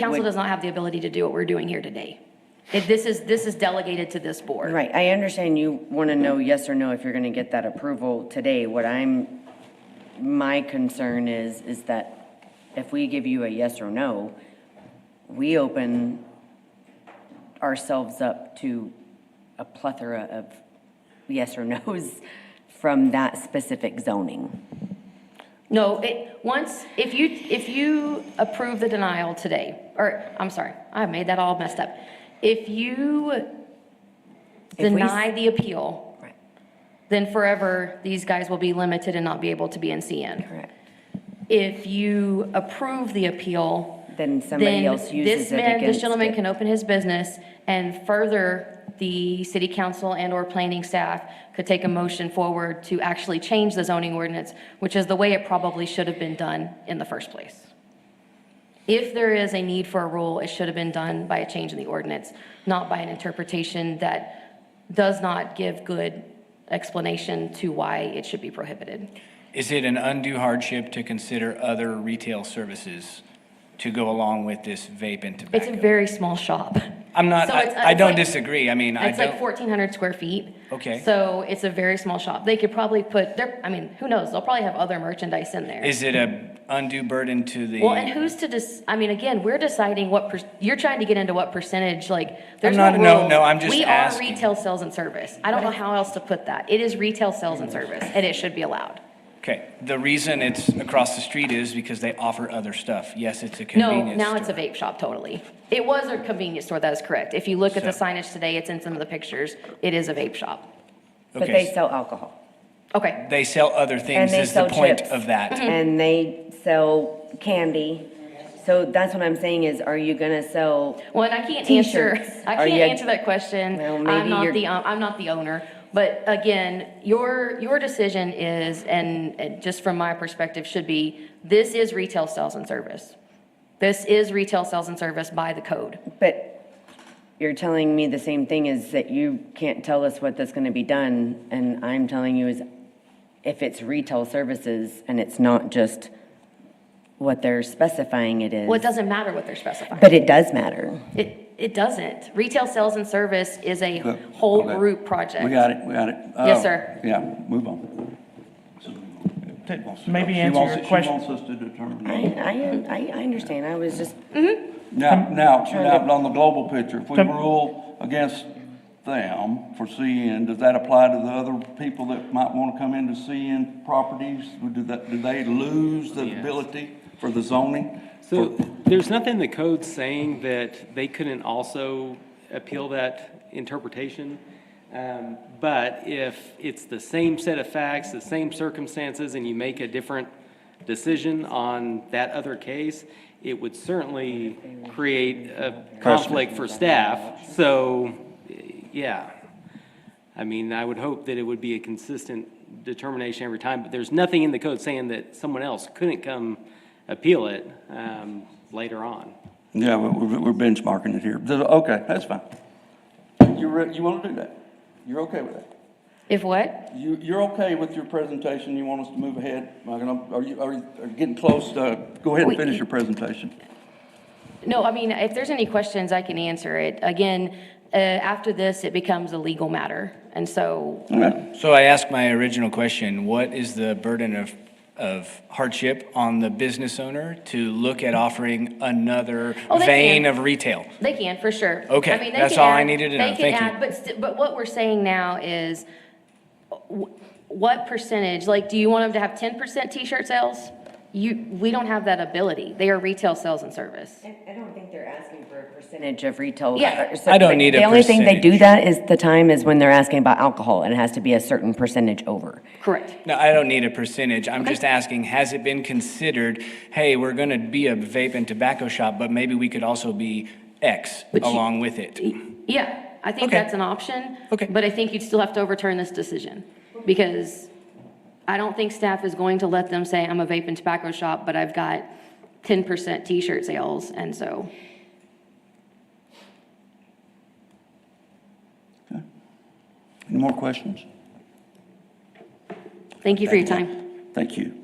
Council would- does not have the ability to do what we're doing here today. If This is, this is delegated to this board. Right, I understand you want to know yes or no if you're going to get that approval today. What I'm, my concern is, is that if we give you a yes or no, we open ourselves up to a plethora of yes or nos from that specific zoning. No, it, once, if you, if you approve the denial today, or, I'm sorry, I made that all messed up. If you If we s- deny the appeal, Right, then forever, these guys will be limited and not be able to be in CN. correct. If you approve the appeal, Then somebody then else uses this it man, this against gentleman it. can open his business and further, the city council and/or planning staff could take a motion forward to actually change the zoning ordinance, which is the way it probably should have been done in the first place. If there is a need for a rule, it should have been done by a change in the ordinance, not by an interpretation that does not give good explanation to why it should be prohibited. Is it an undue hardship to consider other retail services to go along with this vape and It's a tobacco? very small shop. I'm not, So I it's- I it's don't like- disagree, I mean, I It's like don't, fourteen hundred square feet. Okay. So it's a very small shop. They could probably put their, I mean, who knows? They'll probably have other merchandise in there. is it a undue burden to the? Well, and who's to dis, I mean, again, we're deciding what, per- you're trying to get into what percentage, like, there's no not- no, rules. no, I'm just We asking. are retail sales and service. I don't know how else to put that. It is retail sales and service, and it should be allowed. Okay, the reason it's across the street is because they offer other stuff. Yes, it's a No, convenience now it's a store. vape shop, totally. It was a convenience store, that is correct. If you look at the So- signage today, it's in some of the pictures, it is a vape shop. But Okay, they s- sell alcohol. Okay, They sell other things they is the sell point chips. Mm-hmm. of that. and they sell candy. So that's what I'm saying is, are you gonna sell? Well, and I can't answer, T-shirts. I Are can't you- answer that question. Well, I'm maybe not you're- the, um, I'm not the owner. But again, your, your decision is, and, and just from my perspective, should be, this is retail sales and service. This is retail sales and service by the code. But you're telling me the same thing is that you can't tell us what that's gonna be done, and I'm telling you is if it's retail services and it's not just what they're specifying it is. Well, it doesn't matter what they're specifying. But it does matter. It, it doesn't. Retail sales and service is a Look, whole okay. group project. We got it, we got it. Yes, Oh, sir. Yeah, move on. Ted wants to- Maybe she answer wants your it- question. She wants us to determine. I, I, I, I understand, I was just, Now, now, trying to- now, on the global picture, if we Come- rule against them for CN, does that apply to the other people that might want to come into CN properties? Do that, do they lose the ability for the zoning? So there's nothing in the code saying that they couldn't also appeal that interpretation. Um, But if it's the same set of facts, the same circumstances, and you make a different decision on that other case, it would certainly create a conflict for staff. So, yeah. I mean, I would hope that it would be a consistent determination every time, but there's nothing in the code saying that someone else couldn't come appeal it um, later on. Yeah, we- we're, we're benchmarking it here. Th- Okay, that's fine. You, re- you want to do that? You're okay with that? If what? You, you're okay with your presentation, you want us to move ahead? Am I gonna- Are you, are you are you getting close, uh, go ahead Wait. and finish your presentation. No, I mean, if there's any questions, I can answer it. Again, uh, after this, it becomes a legal matter. And so Okay. So I asked my original question, what is the burden of, of hardship on the business owner to look at offering another Oh, they vein can. of retail? They can, for sure. Okay, I mean, they that's can all I add- needed they to can know. Thank you. add- But, st- but what we're saying now is, wh- what percentage, like, do you want them to have ten percent t-shirt sales? You, we don't have that ability. They are retail sales and service. I don't think they're asking for a percentage of retail. Yeah. or so- I don't but need a The only thing they do percentage. that is, the time is when they're asking about alcohol, and it has to be a certain percentage over. Correct. No, I don't need a percentage. I'm just asking, has it been considered, hey, we're going to be a vape and tobacco shop, but maybe we could also be X But you- along with it? Yeah, I think Okay. that's an option. Okay. But I think you'd still have to overturn this decision, because I don't think staff is going to let them say, I'm a vape and tobacco shop, but I've got ten percent t-shirt sales, and so. Any more questions? Thank you for your time. Thank you.